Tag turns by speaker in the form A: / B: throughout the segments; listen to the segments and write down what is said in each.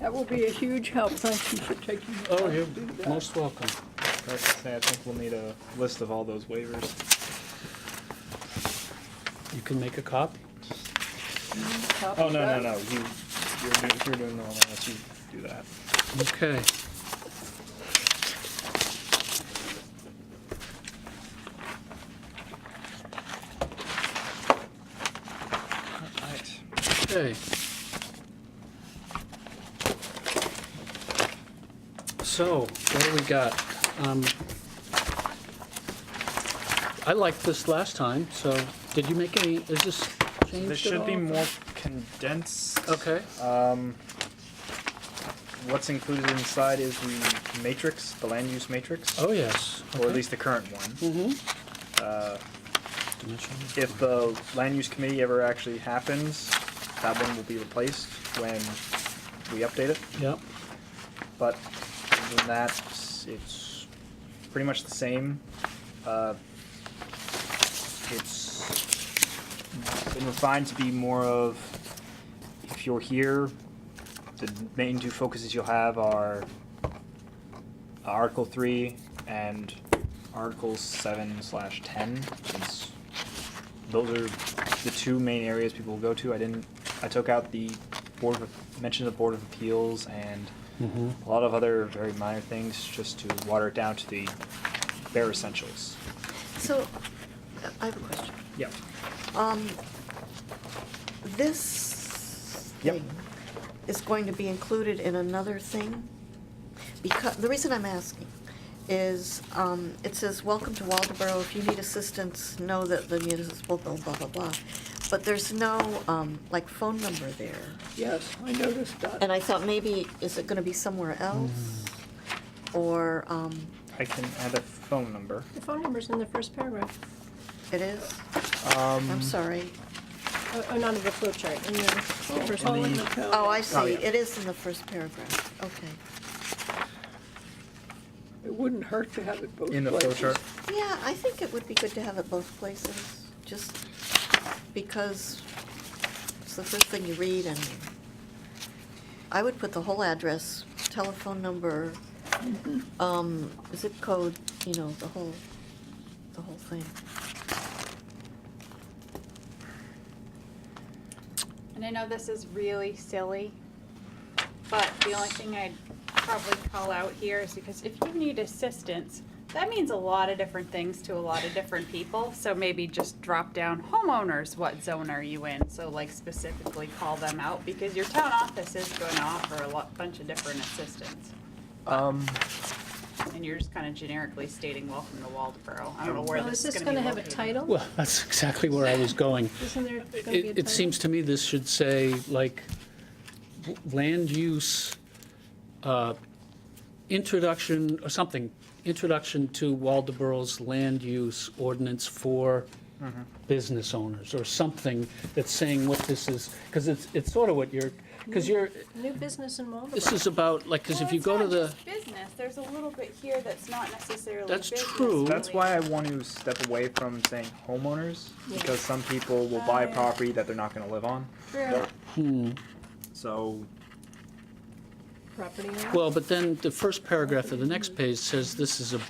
A: That will be a huge help. Thank you for taking the
B: Oh,
A: time to
B: you're
A: do that.
B: most welcome.
C: Like I say, I think we'll need a list of all those waivers.
B: You can make a copy.
A: Copy
C: Oh, no, no,
A: that.
C: no, you, you're doing, if you're doing the one else, you do that.
B: Okay.
C: Alright.
B: Okay. So, what do we got? Um, I liked this last time, so did you make any, is this changed
C: This
B: at
C: should be
B: all?
C: more condensed.
B: Okay,
C: Um, what's included inside is the matrix, the land use matrix,
B: oh, yes.
C: or at least the current one.
B: Mm-hmm.
C: Uh, if uh, the land use committee ever actually happens, that one will be replaced when we update it.
B: Yep,
C: But other than that, it's pretty much the same. Uh, it's been refined to be more of if you're here, the main two focuses you'll have are Article three and Article seven slash ten. Since those are the two main areas people will go to. I didn't. I took out the board of mentioned the board of appeals and
A: Mm-hmm.
B: Mhm.
C: a lot of other very minor things just to water it down to the bare essentials.
D: So, I have a question.
C: Yep.
D: Um, this
C: Yep.
D: thing is going to be included in another thing? Because, the reason I'm asking is, um, it says, welcome to Waldeboro, if you need assistance, know that the municipal blah, blah, blah, blah. But there's no, um, like, phone number there.
A: Yes, I noticed that.
D: And I thought maybe, is it gonna be somewhere else? Or, um,
C: I can add a phone number.
E: The phone number's in the first paragraph,
D: it is?
C: Um,
D: I'm sorry.
E: oh, oh, not in the flow chart, in the the first
A: Oh,
E: one.
A: in the county.
D: Oh, I see,
C: yeah.
D: it is in the first paragraph, okay.
A: It wouldn't hurt to have it both places.
C: In the flow chart.
D: Yeah, I think it would be good to have it both places, just because it's the first thing you read and I would put the whole address, telephone number, um, zip code, you know, the whole, the whole thing.
F: And I know this is really silly, but the only thing I'd probably call out here is because if you need assistance, that means a lot of different things to a lot of different people. So maybe just drop down homeowners, what zone are you in? So like specifically call them out because your town office is going to offer a lot, bunch of different assistance.
C: Um,
F: And you're just kind of generically stating, welcome to Waldeboro. I don't know where
E: Well,
F: this
E: is
F: is
E: this
F: going to
E: gonna
F: be
E: have a
F: located.
E: title?
B: well, that's exactly where I was going.
E: Isn't there gonna be a title?
B: It, it seems to me this should say, like, w- land use, uh, introduction, or something, introduction to Waldeboro's land use ordinance for business owners, or something that's saying what this is, because it's, it's sort of what you're, because you're,
E: New business in Marlboro.
B: this is about, like, because if
F: Mm-hmm.
B: you go
F: Well, it's
B: to
F: not
B: the,
F: just Business, there's a little bit here that's not necessarily
B: That's
F: business
B: true.
C: that's
F: related.
C: why I want to step away from saying homeowners
E: Yeah.
C: because some people will buy
F: Oh,
C: a
F: yeah.
C: property that they're not going to live on.
F: True.
B: hmm,
C: So
E: Property owner?
B: well, but then the first paragraph of the next page says this is a,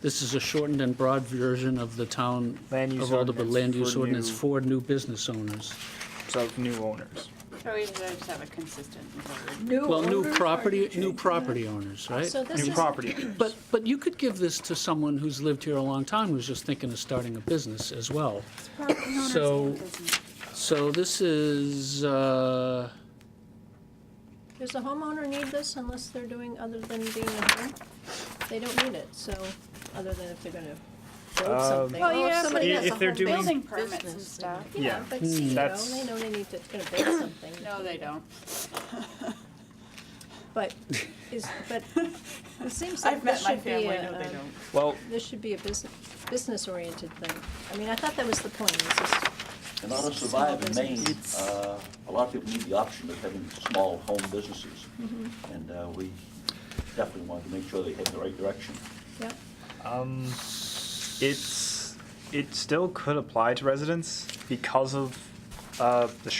B: this is a shortened and broad version of the town
C: Land use
B: of Waldeboro
C: ordinance
B: land use
C: for
B: ordinance
C: new-
B: for new business owners.
C: so new owners.
F: So we just have a consistent word.
A: New
B: Well, new
A: owners, are you
B: property, new
A: changing
B: property owners, right?
E: So this
C: new
E: is,
C: property owners.
B: But, but you could give this to someone who's lived here a long time, who's just thinking of starting a business as well. So- So this is, uh,
E: does the homeowner need this unless they're doing other than being a home? They don't need it, so, other than if they're gonna build
C: Um,
E: something.
F: Well,
E: Oh,
F: yeah,
E: if somebody
C: but
E: has
C: if
E: a
C: they're
E: home
C: doing-
F: Building
D: Building
F: permits and
D: business,
F: stuff.
E: Yeah,
C: Yeah.
E: but
B: Hmm.
E: see, you know,
C: That's-
E: they know they need to, gonna build something.
F: No, they don't.
E: But, is, but, it seems like
F: I've
E: this
F: met my
E: should be
F: family,
E: a,
F: no, they
E: um,
F: don't.
C: Well,
E: This should be a business, business-oriented thing. I mean, I thought that was the point, this is,
G: In order to survive in Maine,
E: It's-
G: uh, a lot of people need the option of having small home businesses. And uh, we definitely want to make sure they head in the right direction.
E: yeah,
C: Um, it's it still could apply to residents because of uh, the